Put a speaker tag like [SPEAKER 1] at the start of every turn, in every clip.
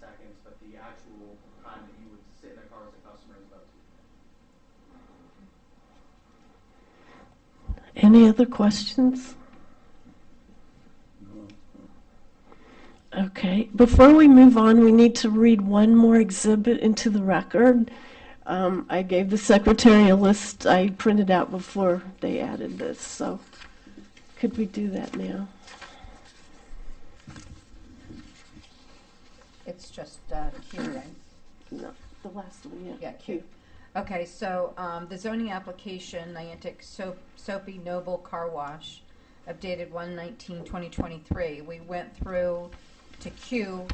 [SPEAKER 1] seconds, but the actual time that you would sit in the car as a customer is about two minutes.
[SPEAKER 2] Any other questions? Okay, before we move on, we need to read one more exhibit into the record. Um, I gave the secretary a list I printed out before they added this, so could we do that now?
[SPEAKER 3] It's just uh, Q, right?
[SPEAKER 2] No, the last one,
[SPEAKER 3] Yeah, Q. Okay, so um, the zoning application, Niantic Soap- Soapy Noble Car Wash, updated 1/19/2023. We went through to Q,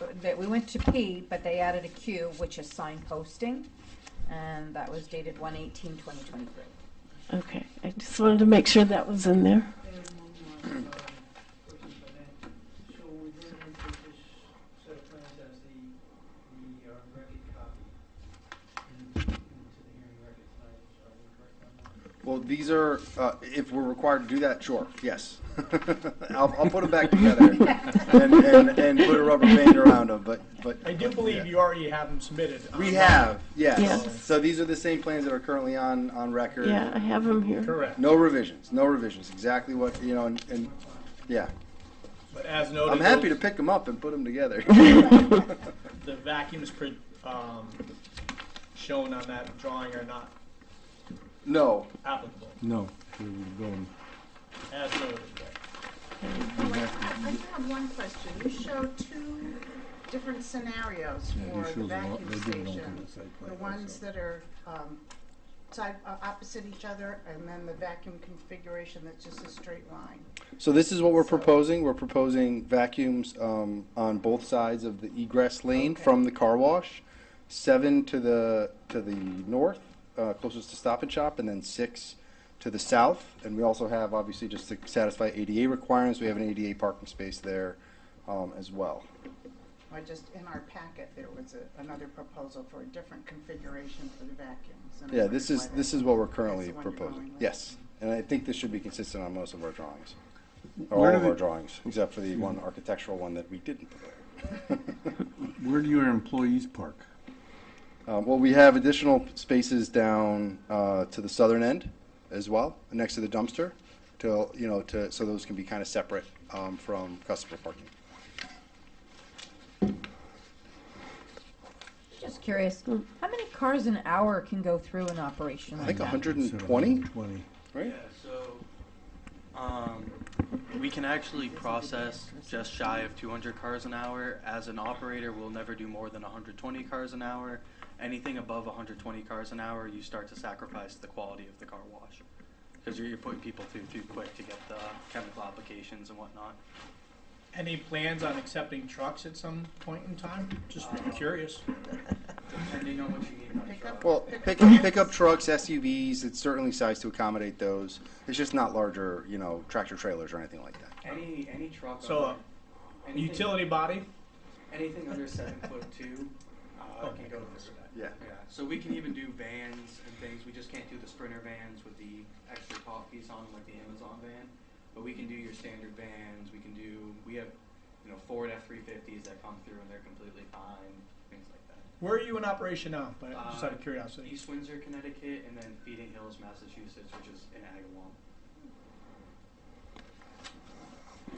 [SPEAKER 3] uh, that- we went to P, but they added a Q, which is sign posting, and that was dated 1/18/2023.
[SPEAKER 2] Okay, I just wanted to make sure that was in there.
[SPEAKER 4] And one more, um, question if I may. So we bring into this set of plans as the, the uh, record copy in- into the hearing record tonight, so I would correct on that.
[SPEAKER 5] Well, these are, uh, if we're required to do that, sure, yes. I'll, I'll put them back together and, and, and put a rubber band around them, but, but.
[SPEAKER 6] I do believe you already have them submitted.
[SPEAKER 5] We
[SPEAKER 6] online.
[SPEAKER 5] have,
[SPEAKER 2] Yes.
[SPEAKER 5] yes. So these are the same plans that are currently on, on record.
[SPEAKER 2] Yeah, I have them here.
[SPEAKER 6] Correct,
[SPEAKER 5] No revisions, no revisions, exactly what, you know, and, and, yeah.
[SPEAKER 6] but as noted.
[SPEAKER 5] I'm happy to
[SPEAKER 6] those-
[SPEAKER 5] pick them up and put them together.
[SPEAKER 6] The vacuums pre- um, shown on that drawing are not
[SPEAKER 5] No,
[SPEAKER 6] applicable,
[SPEAKER 7] No, we would go on.
[SPEAKER 6] as noted.
[SPEAKER 8] Oh, I I do have one question. You show two different scenarios
[SPEAKER 7] Yeah,
[SPEAKER 8] for
[SPEAKER 7] he
[SPEAKER 8] the
[SPEAKER 7] shows a lot,
[SPEAKER 8] vacuum
[SPEAKER 7] they do it all on
[SPEAKER 8] station.
[SPEAKER 7] the site plan
[SPEAKER 8] The ones
[SPEAKER 7] also.
[SPEAKER 8] that are um, side, uh, opposite each other, and then the vacuum configuration that's just a straight line.
[SPEAKER 5] So this is what we're proposing. We're proposing vacuums um, on both sides of the egress lane
[SPEAKER 8] Okay.
[SPEAKER 5] from the car wash, seven to the to the north, uh, closest to Stop and Shop, and then six to the south. And we also have obviously just to satisfy ADA requirements. We have an ADA parking space there um, as well.
[SPEAKER 8] Or just in our packet, there was a- another proposal for a different configuration for the vacuums. and I
[SPEAKER 5] Yeah, this
[SPEAKER 8] wondered
[SPEAKER 5] is
[SPEAKER 8] why
[SPEAKER 5] this
[SPEAKER 8] that-
[SPEAKER 5] is what we're
[SPEAKER 8] that's
[SPEAKER 5] currently
[SPEAKER 8] the one you're
[SPEAKER 5] proposing.
[SPEAKER 8] going with.
[SPEAKER 5] Yes, and I think this should be consistent on most of our drawings,
[SPEAKER 7] Where
[SPEAKER 5] or all
[SPEAKER 7] do
[SPEAKER 5] of
[SPEAKER 7] the-
[SPEAKER 5] our drawings, except for the one architectural one that we didn't prepare.
[SPEAKER 7] Where do your employees park?
[SPEAKER 5] Um, well, we have additional spaces down uh, to the southern end as well, next to the dumpster, to you know, to so those can be kind of separate um, from customer parking.
[SPEAKER 3] Just curious, how many cars an hour can go through an operation
[SPEAKER 5] I
[SPEAKER 3] like
[SPEAKER 5] think
[SPEAKER 3] that?
[SPEAKER 5] 120,
[SPEAKER 7] Twenty.
[SPEAKER 5] right?
[SPEAKER 9] Yeah, so um, we can actually process just shy of 200 cars an hour. As an operator, we'll never do more than 120 cars an hour. Anything above 120 cars an hour, you start to sacrifice the quality of the car wash because you're, you're putting people through too quick to get the chemical applications and whatnot.
[SPEAKER 6] Any plans on accepting trucks at some point in time? Just
[SPEAKER 9] Uh,
[SPEAKER 6] curious.
[SPEAKER 9] Depending on what you need. in a
[SPEAKER 8] Pick
[SPEAKER 9] truck.
[SPEAKER 8] up
[SPEAKER 5] Well, pick pickup trucks, SUVs, it's certainly sized to accommodate those. It's just not larger, you know, tractor trailers or anything like that.
[SPEAKER 9] Any any truck.
[SPEAKER 6] So,
[SPEAKER 9] under- anything-
[SPEAKER 6] Utility body?
[SPEAKER 9] Anything under seven foot two
[SPEAKER 6] Oh
[SPEAKER 9] uh, can go through.
[SPEAKER 5] Yeah.
[SPEAKER 9] Yeah, so we can even do vans and things. We just can't do the sprinter vans with the extra top piece on them, like the Amazon van. But we can do your standard vans. We can do. We have, you know, Ford F three fifties that come through and they're completely fine. Things like that.
[SPEAKER 6] Where are you in operation now, But just out
[SPEAKER 9] Uh,
[SPEAKER 6] of curiosity?
[SPEAKER 9] East Windsor, Connecticut, and then Feeding Hills, Massachusetts, which is in Agawam.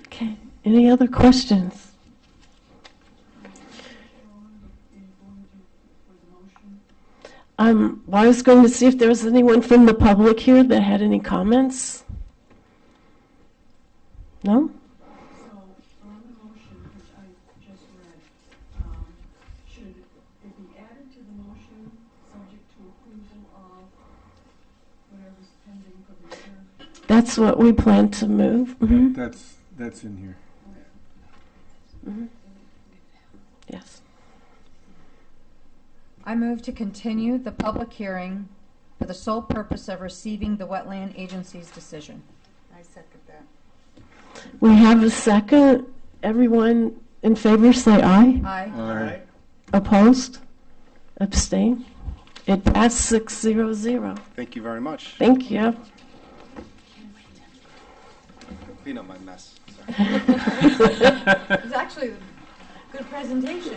[SPEAKER 2] Okay, any other questions? Um, well, I was going to see if there was anyone from the public here that had any comments. No?
[SPEAKER 10] So on the motion, which I just read, um, should it be added to the motion, subject to approval of whatever's pending for the return?
[SPEAKER 2] That's what we plan to move. Mhm.
[SPEAKER 7] That's, that's in here.
[SPEAKER 2] Mm-hmm. Yes.
[SPEAKER 3] I move to continue the public hearing for the sole purpose of receiving the wetland agency's decision.
[SPEAKER 8] I second that.
[SPEAKER 2] We have a second. Everyone in favor, say aye.
[SPEAKER 3] Aye.
[SPEAKER 7] All right.
[SPEAKER 2] Opposed? Abstain? It passed six zero zero.
[SPEAKER 5] Thank you very much.
[SPEAKER 2] Thank you.
[SPEAKER 5] Clean up my mess. Sorry.
[SPEAKER 3] It was actually a good presentation.